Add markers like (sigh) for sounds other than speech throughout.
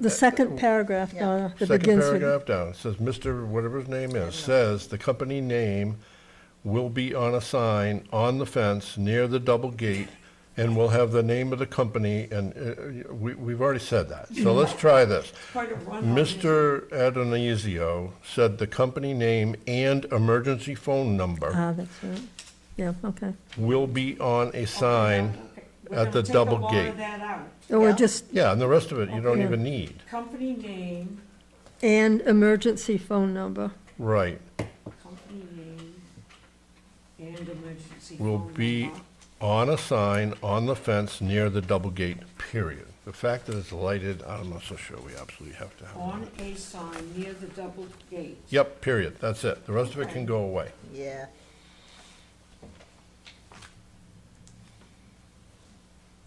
The second paragraph, Donna, that Uh, oh. Second begins with, paragraph down, it says, Mr. whatever his name is, says the company name will be on a sign on the fence near the double gate and will have the name of the company and, uh, we, we've already said that. So Mm-hmm. let's try this. Quite a run-on, isn't it? Mr. Adonisio said the company name and emergency phone number ah, that's right. Yeah, okay. will be on a sign Okay, we're at the gonna double Take a lot gate. of that out. Or Yeah. just, Yeah, and the rest of it you don't Yeah. even need. Company name, and emergency phone number. Right, company name, and emergency will phone be number. on a sign on the fence near the double gate, period. The fact that it's lighted, I'm not so sure we absolutely have to have On it. a sign near the double gate. Yep, period, that's it. The rest of it Okay. can go away. Yeah,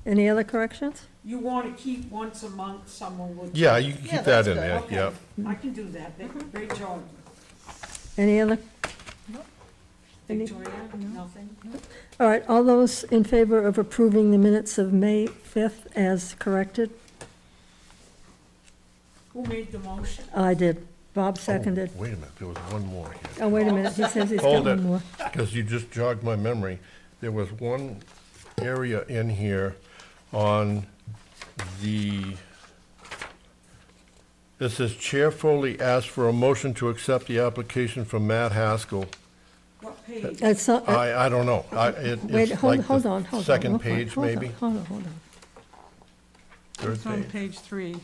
Any other corrections? You want to keep once a month, someone would. Yeah, you can Yeah, keep that that's in good. there, Okay, yep. I can do that, Mm-hmm. That- great job. Any other, Any- Victoria, nothing? all right, all those in favor of approving the minutes of May 5th as corrected? Who made the motion? I did. Bob Oh, seconded. Wait a minute, there was one more here. Oh, wait a minute, he says he's got Hold one it, more. because you just jogged my memory. There was one area in here on the, this says Chair Foley asked for a motion to accept the application from Matt Haskell. What page? It's not- I, I don't know. I, it, uh, Wait, it's hold, like hold on, hold the on. second hold on, page, hold on, maybe, Hold on, hold on. third It's on page. page three.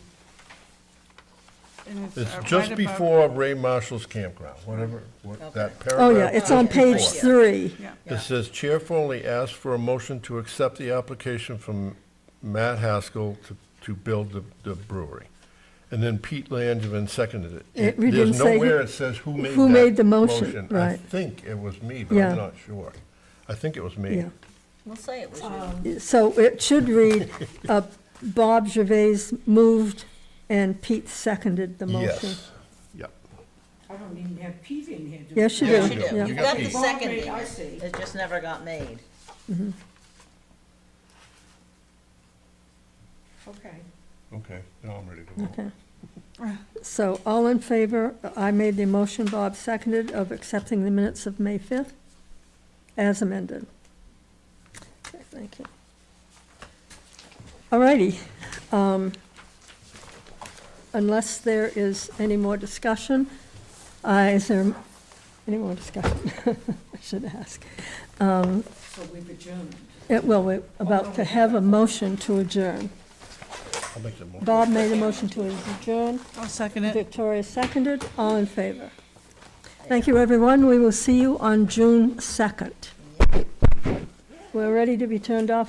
And it's It's uh, just right above- before Ray Marshall's campground, whatever, what, that Oh, paragraph. yeah, it's on page before. three. Yeah, It says Chair Foley asked for a motion to accept the application from Matt Haskell to, to build the, the brewery. And then Pete Langevin seconded it. It- we didn't There's say who- nowhere it says who made that who made the motion, I right. think it was me, but Yeah. I'm not sure. I think it was me. Yeah. we'll say it was you. Um, So it (laughs) should read, uh, Bob Gervais moved and Pete seconded the motion. Yes, yep. I don't even have Pete in here. do Yes, she I? did. Yes, you Yeah. do. You You got got the these. second Well, I one. see. It just never got made. Okay. Okay, now I'm ready to vote. Okay. So all in favor, I made the motion, Bob seconded, of accepting the minutes of May 5th as amended. Okay, Thank you. All righty. Um, Unless there is any more discussion, uh, is there any more discussion? (laughs) I should ask. So we've adjourned. Uh, Well, we're about to have a motion to adjourn. I'll make the motion. Bob made a motion to adjourn. I'll second it. Victoria seconded, all in favor. Thank you, everyone, we will see you on June 2nd. We're ready to be turned off.